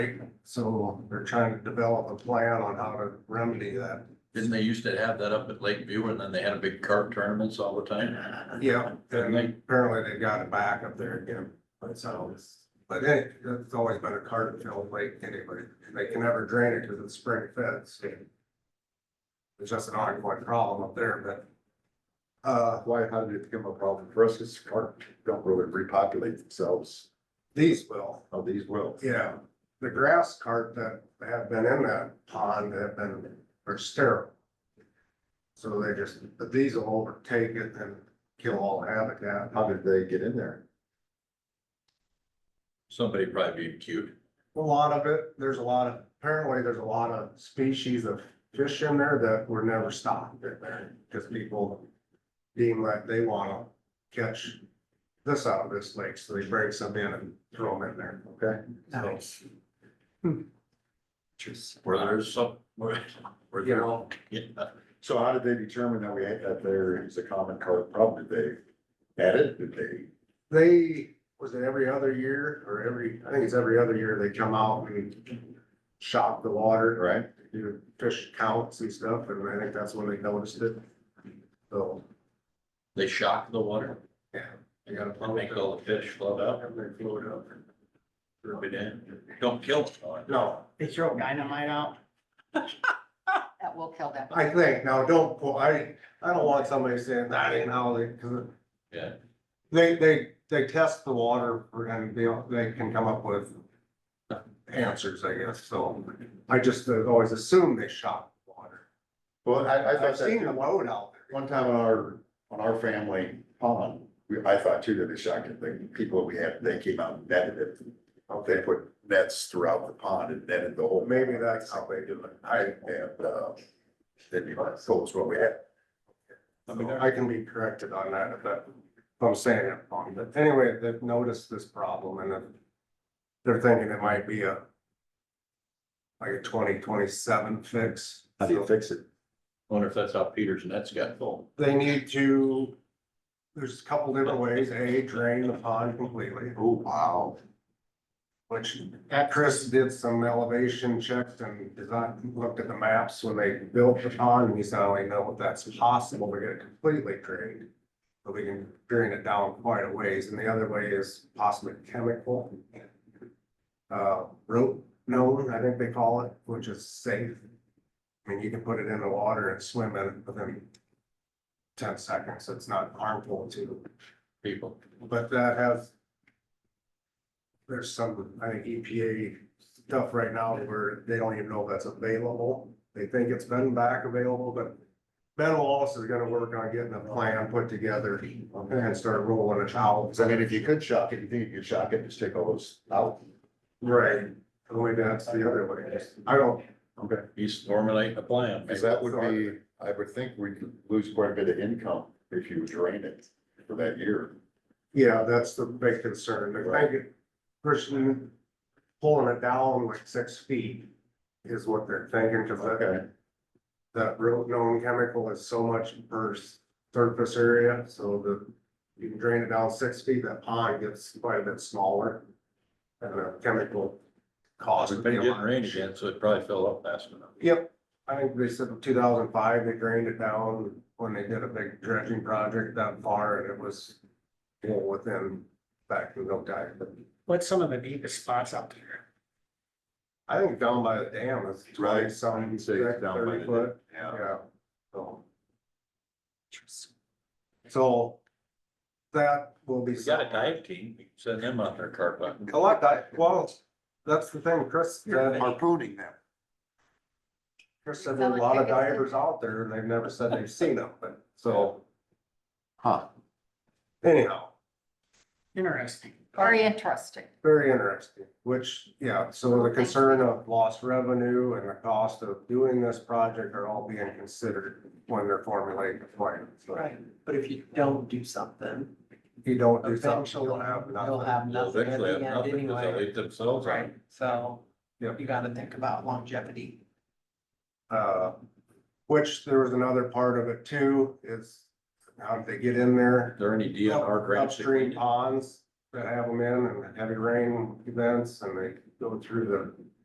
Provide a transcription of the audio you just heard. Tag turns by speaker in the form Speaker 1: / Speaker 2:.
Speaker 1: So they're trying to develop a plan on how to remedy that.
Speaker 2: Didn't they used to have that up at Lakeview and then they had a big card tournaments all the time?
Speaker 1: Yeah, and apparently they got it back up there again, but so, but hey, that's always been a card filled lake anyway. They can never drain it because it's spring fed, so. It's just an ongoing problem up there, but. Uh,
Speaker 3: Why, how did it become a problem for us? It's carp don't really repopulate themselves.
Speaker 1: these will,
Speaker 3: Oh, these will.
Speaker 1: yeah, the grass carp that have been in that pond have been, are sterile. So they just, but these will overtake it and kill all habitat.
Speaker 3: How did they get in there?
Speaker 2: Somebody probably being cute.
Speaker 1: A lot of it, there's a lot of, apparently there's a lot of species of fish in there that were never stocked in there, because people deem like they wanna catch this out of this lake, so they bring some in and throw them in there.
Speaker 3: Okay. Hmm.
Speaker 1: Nice.
Speaker 2: Where there's some, where, where
Speaker 1: You
Speaker 2: there,
Speaker 1: know,
Speaker 2: yeah,
Speaker 3: So how did they determine that we had, that there is a common carp problem? Did they add it? Did they?
Speaker 1: they, was it every other year or every, I think it's every other year they come out and shock the water.
Speaker 3: Right?
Speaker 1: do fish counts and stuff, and I think that's when they noticed it. So,
Speaker 2: they shock the water,
Speaker 1: yeah, they got
Speaker 2: and make all the fish float out.
Speaker 1: And they float up.
Speaker 2: Rub it in. Don't kill them. though.
Speaker 1: No,
Speaker 4: They throw dynamite out. That will kill them.
Speaker 1: I think, now, don't, quote- I, I don't want somebody saying that ain't how they, cause
Speaker 2: Yeah,
Speaker 1: they, they, they test the water for- and they, they can come up with answers, I guess, so I just uh, always assume they shot the water.
Speaker 3: Well, I, I
Speaker 1: I've
Speaker 3: thought
Speaker 1: seen the
Speaker 3: that
Speaker 1: load out there.
Speaker 3: one time on our, on our family pond, we, I thought too that they shocked it. The people we had, they came out and netted it. They put nets throughout the pond and netted the whole.
Speaker 1: Maybe that's how they do it.
Speaker 3: I, and, uh, that'd be my thoughts, what we had.
Speaker 1: I mean, I can be corrected on that if that, if I'm saying it wrong, but anyway, they've noticed this problem and then they're thinking it might be a like a twenty twenty-seven fix.
Speaker 3: How do you fix it?
Speaker 2: wonder if that's how Peter's nets got full.
Speaker 1: They need to, there's a couple different ways, A, drain the pond completely,
Speaker 3: Oh, wow.
Speaker 1: which Chris did some elevation checks and design, looked at the maps when they built the pond, and he said, I know that's possible to get it completely drained. But we can drain it down quite a ways, and the other way is possibly chemical. Uh, rope known, I think they call it, which is safe. I mean, you can put it in the water and swim in it within ten seconds, it's not harmful to
Speaker 2: People,
Speaker 1: but that has. There's some, I think EPA stuff right now where they don't even know if that's available. They think it's been back available, but. Ben Wallace is gonna work on getting a plan put together and start rolling it out.
Speaker 3: 'Cause I mean, if you could shock it, you think you could shock it, just take all those out.
Speaker 1: Right. The way that's the other way. I don't,
Speaker 3: Okay.
Speaker 2: he's formulating a plan.
Speaker 3: Cause that would be, I would think we'd lose quite a bit of income if you drain it for that year.
Speaker 1: yeah, that's the big concern. The big person pulling it down like six feet is what they're thinking, cause that-
Speaker 3: Okay.
Speaker 1: that real known chemical is so much per s- surface area, so the, you can drain it down six feet, that pond gets quite a bit smaller. And the chemical cost.
Speaker 2: It's
Speaker 1: would be
Speaker 2: been
Speaker 1: a
Speaker 2: getting
Speaker 1: lot.
Speaker 2: rain again, so it probably fell up fast enough.
Speaker 1: Yep, I think they said two thousand five, they drained it down when they did a big dredging project that far, and it was you know, within, back in no time, but
Speaker 5: What's some of the deepest spots out there?
Speaker 1: I think down by the dam is twenty
Speaker 3: Right,
Speaker 1: some.
Speaker 3: you'd say it's down by the
Speaker 1: thirty
Speaker 3: dam.
Speaker 1: foot, Yeah, so. So that will be.
Speaker 2: We got a dive team, We can send them out there carp out.
Speaker 1: A lot dive, well, that's the thing, Chris, said-
Speaker 3: Harpooning them.
Speaker 1: Chris said there's a lot of divers out there and they've never said they've seen them, but so
Speaker 3: Huh.
Speaker 1: anyhow,
Speaker 5: Interesting.
Speaker 4: Very interesting.
Speaker 1: very interesting. Which, yeah, so the concern of lost revenue and the cost of doing this project are all being considered when they're formulating the plan. So
Speaker 6: Right, but if you don't do something,
Speaker 1: if you don't do something,
Speaker 6: eventually
Speaker 1: you'll have
Speaker 6: you'll
Speaker 1: nothing.
Speaker 6: have
Speaker 2: Well,
Speaker 6: nothing at
Speaker 2: Eventually,
Speaker 6: the
Speaker 2: have
Speaker 6: end
Speaker 2: nothing, because they
Speaker 6: anyway.
Speaker 2: eat themselves out.
Speaker 6: Right, so
Speaker 1: Yep.
Speaker 6: you gotta think about longevity.
Speaker 1: Uh, which there was another part of it too, is how did they get in there?
Speaker 2: Are there any DNR grants? that we
Speaker 1: Upstream
Speaker 2: can-
Speaker 1: ponds, that have them in and heavy rain events and they go through the